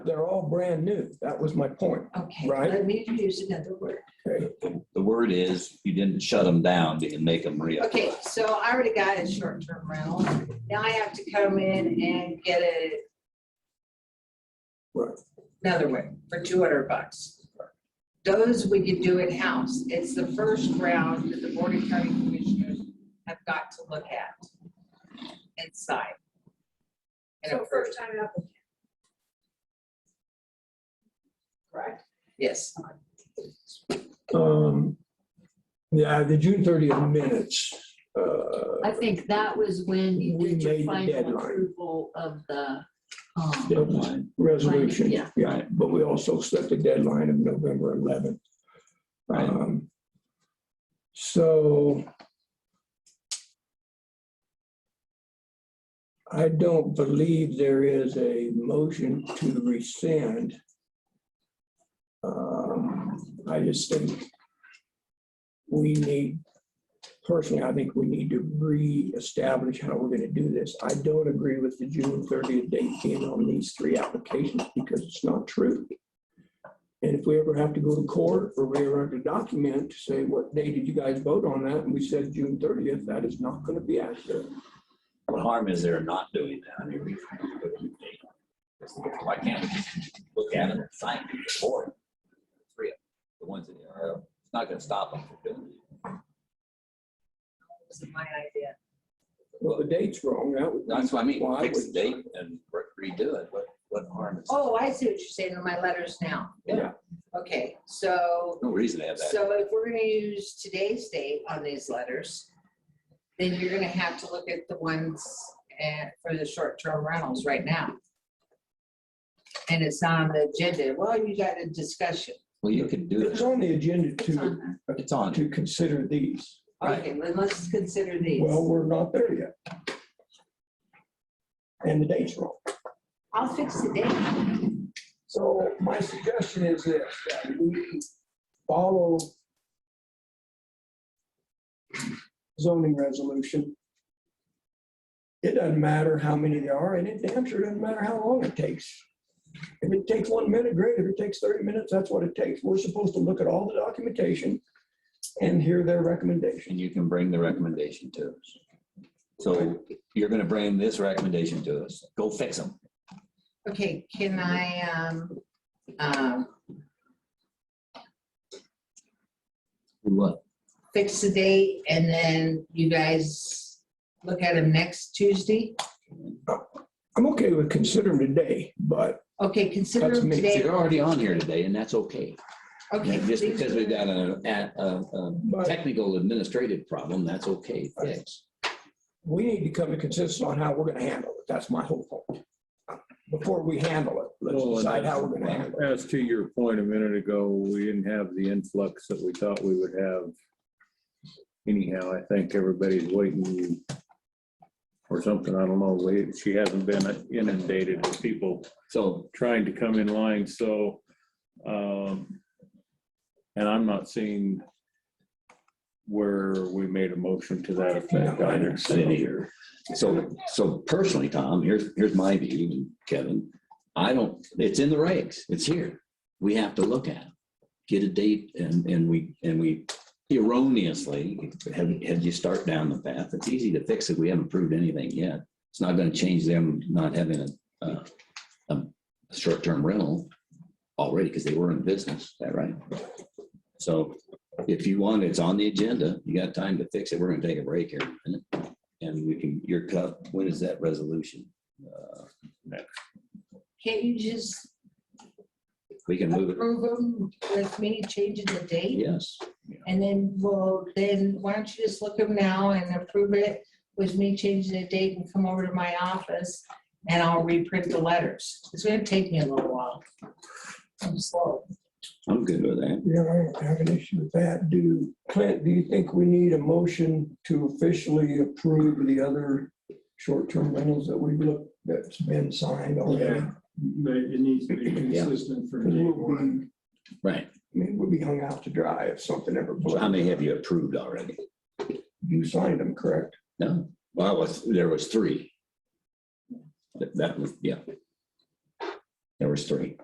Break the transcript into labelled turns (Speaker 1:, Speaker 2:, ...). Speaker 1: They're all brand new. That was my point.
Speaker 2: Okay,
Speaker 1: Right.
Speaker 2: let me use another word.
Speaker 3: The word is, you didn't shut them down, but you make them real.
Speaker 2: Okay, so I already got a short-term rental. Now I have to come in and get a
Speaker 1: Right.
Speaker 2: another one for two hundred bucks. Those we could do in-house. It's the first round that the Board of County Commissioners have got to look at and sign. And
Speaker 4: So
Speaker 2: approve,
Speaker 4: first time applicant. Correct?
Speaker 2: yes.
Speaker 1: Um, yeah, the June thirtieth minutes. Uh,
Speaker 5: I think that was when you
Speaker 1: We
Speaker 5: did
Speaker 1: made the
Speaker 5: your final
Speaker 1: deadline.
Speaker 5: approval of the, um,
Speaker 3: Deadline.
Speaker 1: resolution.
Speaker 5: Right, yeah.
Speaker 1: Yeah, but we also set the deadline of November eleventh.
Speaker 3: Right.
Speaker 1: Um, So I don't believe there is a motion to rescind. Um, I just think we need, personally, I think we need to reestablish how we're going to do this. I don't agree with the June thirtieth date being on these three applications because it's not true. And if we ever have to go to court or we ever have to document, to say, what day did you guys vote on that? And we said June thirtieth, that is not going to be accurate.
Speaker 3: What harm is there in not doing that? I mean, we- Why can't we just look at it and sign it before? Three of them, the ones that are, it's not gonna stop them from doing it.
Speaker 2: That's my idea.
Speaker 1: Well, the date's wrong. That would.
Speaker 3: That's what I mean,
Speaker 1: Well, I
Speaker 3: fix the
Speaker 1: would-
Speaker 3: date and re- redo it, what, what harm is?
Speaker 2: Oh, I see what you're saying in my letters now.
Speaker 1: Yeah.
Speaker 2: Okay, so
Speaker 3: No reason to have that.
Speaker 2: So if we're gonna use today's date on these letters, then you're gonna have to look at the ones eh, for the short-term rentals right now. And it's on the agenda. Well, you got a discussion.
Speaker 3: Well, you could do
Speaker 1: It's
Speaker 3: it,
Speaker 1: on the agenda
Speaker 2: It's
Speaker 1: to,
Speaker 2: on there.
Speaker 3: it's on,
Speaker 1: to consider these.
Speaker 3: right?
Speaker 2: Okay, then let's consider these.
Speaker 1: Well, we're not there yet. And the date's wrong.
Speaker 2: I'll fix the date.
Speaker 1: So my suggestion is this, that we follow zoning resolution. It doesn't matter how many there are, and it damn sure doesn't matter how long it takes. If it takes one minute, great. If it takes thirty minutes, that's what it takes. We're supposed to look at all the documentation and hear their recommendation.
Speaker 3: And you can bring the recommendation to us. So you're gonna bring this recommendation to us, go fix them.
Speaker 2: Okay, can I, um, um,
Speaker 3: What?
Speaker 2: fix the date and then you guys look at them next Tuesday?
Speaker 1: I'm okay with considering today, but
Speaker 2: Okay, consider
Speaker 1: That's
Speaker 2: them
Speaker 1: me.
Speaker 2: today.
Speaker 3: They're already on here today, and that's okay.
Speaker 2: Okay.
Speaker 3: Just
Speaker 2: these
Speaker 3: because
Speaker 2: are-
Speaker 3: we've got a, a, a- a
Speaker 1: But-
Speaker 3: technical administrative problem, that's okay, fix.
Speaker 1: we need to come to consensus on how we're gonna handle it. That's my whole point. Before we handle it, let's
Speaker 6: Well, and
Speaker 1: decide how we're gonna handle it.
Speaker 6: As to your point a minute ago, we didn't have the influx that we thought we would have. Anyhow, I think everybody's waiting or something, I don't know, We- she hasn't been inundated with people
Speaker 3: So
Speaker 6: trying to come in line, so. um And I'm not seeing where we made a motion to that effect either. so.
Speaker 3: City here. So, so personally, Tom, here's, here's my view, and Kevin, I don't, it's in the regs, it's here. We have to look at, it. get a date and, and we, and we erroneously, have, have you start down the path. It's easy to fix it. We haven't proved anything yet. It's not gonna change them not having a, a, a short-term rental already, because they were in business, is that right? So if you want, it's on the agenda. You got time to fix it. We're gonna take a break here in a minute. And we can, your cup, when is that resolution? Uh,
Speaker 2: Can't you just
Speaker 3: We can move it,
Speaker 2: approve them with me changing the date?
Speaker 3: yes.
Speaker 2: And then, well, then why don't you just look them now and approve it with me changing the date and come over to my office and I'll reprint the letters. It's gonna take me a little while. I'm slow.
Speaker 3: I'm good with that.
Speaker 1: Yeah, I don't have an issue with that. Do, Clint, do you think we need a motion to officially approve the other short-term rentals that we've looked, that's been signed already?
Speaker 7: Yeah, but it needs to be
Speaker 3: Yeah.
Speaker 7: consistent from
Speaker 1: Because
Speaker 7: day
Speaker 1: we'll
Speaker 7: one.
Speaker 1: be,
Speaker 3: Right.
Speaker 1: I mean, we'll be hung out to dry if something ever.
Speaker 3: So How many have you approved already?
Speaker 1: You signed them, correct?
Speaker 3: No? Well, it was, there was three. That- That was, yeah. There was three.